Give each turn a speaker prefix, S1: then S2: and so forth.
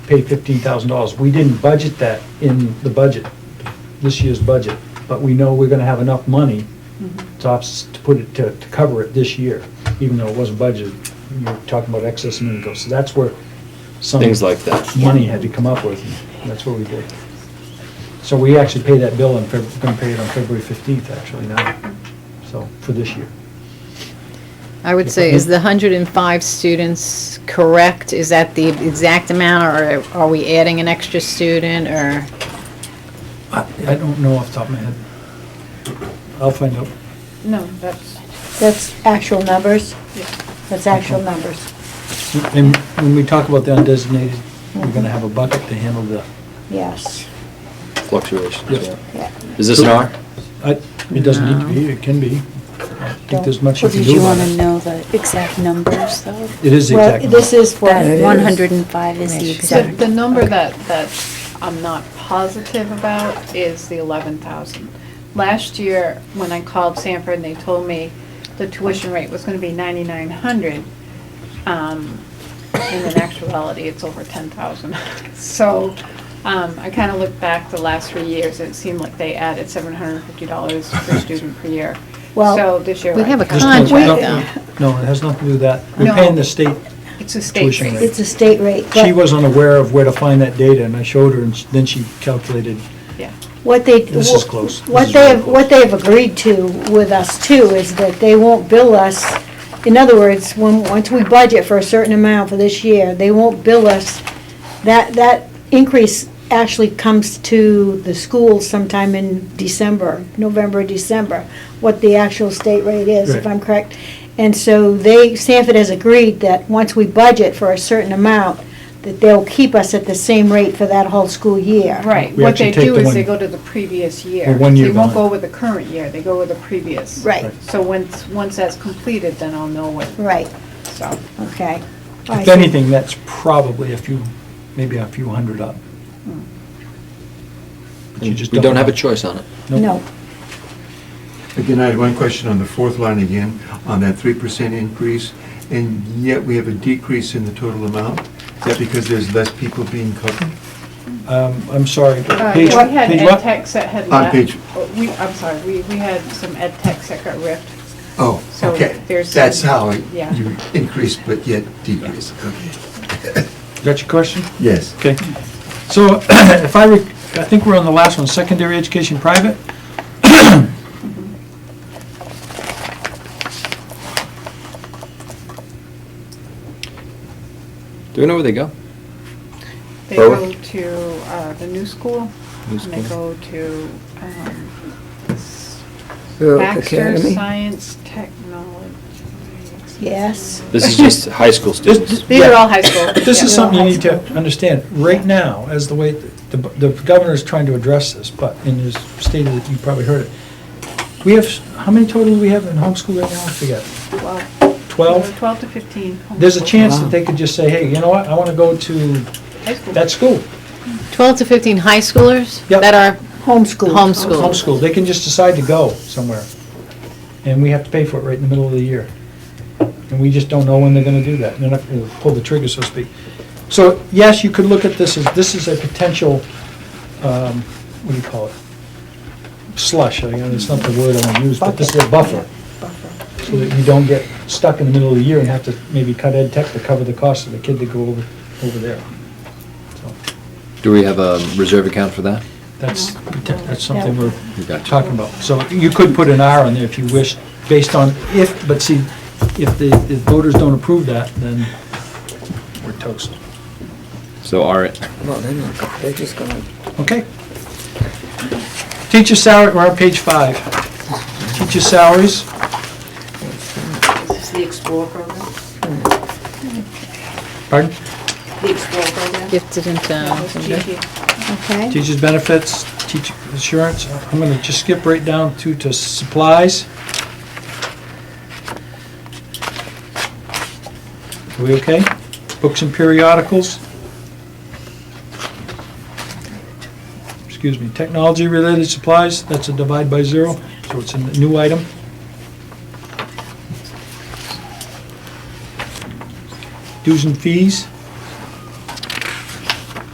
S1: pay fifteen thousand dollars. We didn't budget that in the budget, this year's budget, but we know we're gonna have enough money to, ops- to put it, to, to cover it this year, even though it wasn't budgeted. You're talking about excess a minute ago, so that's where some.
S2: Things like that.
S1: Money had to come up with, and that's what we did. So we actually pay that bill on Feb, gonna pay it on February fifteenth, actually, now, so, for this year.
S3: I would say, is the 105 students correct? Is that the exact amount, or are we adding an extra student, or?
S1: I, I don't know off the top of my head. I'll find out.
S4: No, that's,
S5: That's actual numbers?
S4: Yeah.
S5: That's actual numbers,
S1: And when we talk about the undesignated, we're gonna have a bucket to handle the,
S5: yes,
S2: fluctuations,
S1: Yes.
S2: yeah.
S5: yeah.
S2: Is this an R?
S1: I- it doesn't need to be, it can be. I think there's much you
S6: Well,
S1: can
S6: did
S1: do
S6: you
S1: about
S6: want to
S1: it.
S6: know the exact numbers, though?
S1: It is the
S5: Well,
S1: exact.
S5: this
S1: number.
S5: is what
S6: That
S5: it is.
S6: 105 is the
S3: Right.
S4: the,
S6: exact.
S4: the number that, that I'm not positive about is the eleven thousand. Last year, when I called Sanford and they told me the tuition rate was gonna be ninety-nine hundred, um, and in actuality, it's over ten thousand. So, um, I kinda looked back the last three years, and it seemed like they added seven hundred and fifty dollars per student per year.
S5: Well,
S4: So this year.
S3: we
S4: I
S3: have a
S4: kinda-
S1: This has
S3: Contract,
S1: nothing- No, it has nothing to do with that. We're
S4: No.
S1: paying the state.
S4: It's a state
S1: tuition
S4: rate.
S1: rate.
S5: It's a state rate.
S1: She
S5: but
S1: wasn't aware of where to find that data, and I showed her, and s- then she calculated.
S4: Yeah.
S5: What they.
S1: This is close. This
S5: What
S1: is
S5: they
S1: really
S5: have, what they have agreed to with us too is that they won't bill us, in other words, when, once we budget for a certain amount for this year, they won't bill us. That, that increase actually comes to the school sometime in December, November, December, what the actual state rate is, if
S1: Right.
S5: I'm correct. And so they, Sanford has agreed that once we budget for a certain amount, that they'll keep us at the same rate for that whole school year.
S4: Right,
S1: Uh, We
S4: what
S1: actually
S4: they
S1: take
S4: do
S1: the
S4: is
S1: one-
S4: they go to the previous year.
S1: The one year
S4: They won't
S1: bond.
S4: go with the current year, they go with the previous.
S5: Right,
S4: So once, once that's completed, then I'll know what,
S5: right,
S4: so.
S5: okay. I
S1: If
S5: see.
S1: anything, that's probably a few, maybe a few hundred up. But you
S2: Mm. We
S1: just
S2: don't have a
S1: know.
S2: choice on it.
S1: Nope.
S5: No,
S7: Again, I had one question on the fourth line again, on that three percent increase, and yet we have a decrease in the total amount. Is that because there's less people being covered?
S1: Um, I'm sorry.
S4: Uh,
S1: Page-
S4: yeah, We had
S1: page
S4: ed
S1: what?
S4: techs that had
S7: On
S4: left.
S7: page-
S4: Oh, We, I'm sorry, we, we had some ed techs that got ripped.
S7: Oh,
S4: So
S7: okay.
S4: there's
S7: That's
S4: some-
S7: how
S4: yeah.
S7: you increase but yet decrease. Okay.
S1: Got your question?
S7: Yes.
S1: Okay. So if I, rec- I think we're on the last one, secondary education private.
S2: Do we know where they go?
S4: They
S2: Or-
S4: go to uh, the new school,
S2: New
S4: and they
S2: school.
S4: go to um, s-
S8: Rural
S4: Baxter
S8: Academy.
S4: Science Technology.
S5: yes.
S2: This is just high school students.
S4: These are all high school.
S1: This
S4: yeah.
S1: is something you need to understand. Right now, as the way, the the governor's trying to address this, but in his state, of the- you probably heard it. We have, how many total do we have in homeschool right now? I forget.
S4: Well,
S1: Twelve?
S4: Twelve to fifteen.
S1: There's a
S4: homeschool.
S1: chance that they could just say, hey, you know what, I want to go to
S4: High school.
S1: that school.
S3: 12 to 15 high schoolers?
S1: Yep.
S3: That are
S5: Homeschool.
S3: homeschooled?
S1: Homeschool. They can just decide to go somewhere. And we have to pay for it right in the middle of the year. And we just don't know when they're gonna do that. They're not gonna pull the trigger, so to speak. So, yes, you could look at this as, this is a potential, um, what do you call it? Slush, I mean, it's not the word I wanna use, but this is a buffer. So that you don't get stuck in the middle of the year and have to maybe cut ed tech to cover the cost of the kid to go over, over there. So,
S2: Do we have a reserve account for that?
S1: That's, that's something we're
S2: We got you.
S1: talking about. So you could put an R on there if you wish, based on if, but see, if the the voters don't approve that, then we're toast.
S2: So R it.
S8: Well, they're not, go- they're just gonna
S1: Okay? Teacher salary, we're on page five. Teacher salaries,
S9: Is this the Explore program?
S1: pardon?
S9: The Explore program?
S3: Gifted and
S4: That was
S3: talented.
S4: GP.
S5: Okay.
S1: Teachers' benefits, teacher insurance. I'm gonna just skip right down to, to supplies. Are we okay? Books and periodicals. Excuse me, technology-related supplies, that's a divide by zero, so it's a new item. Dues and fees.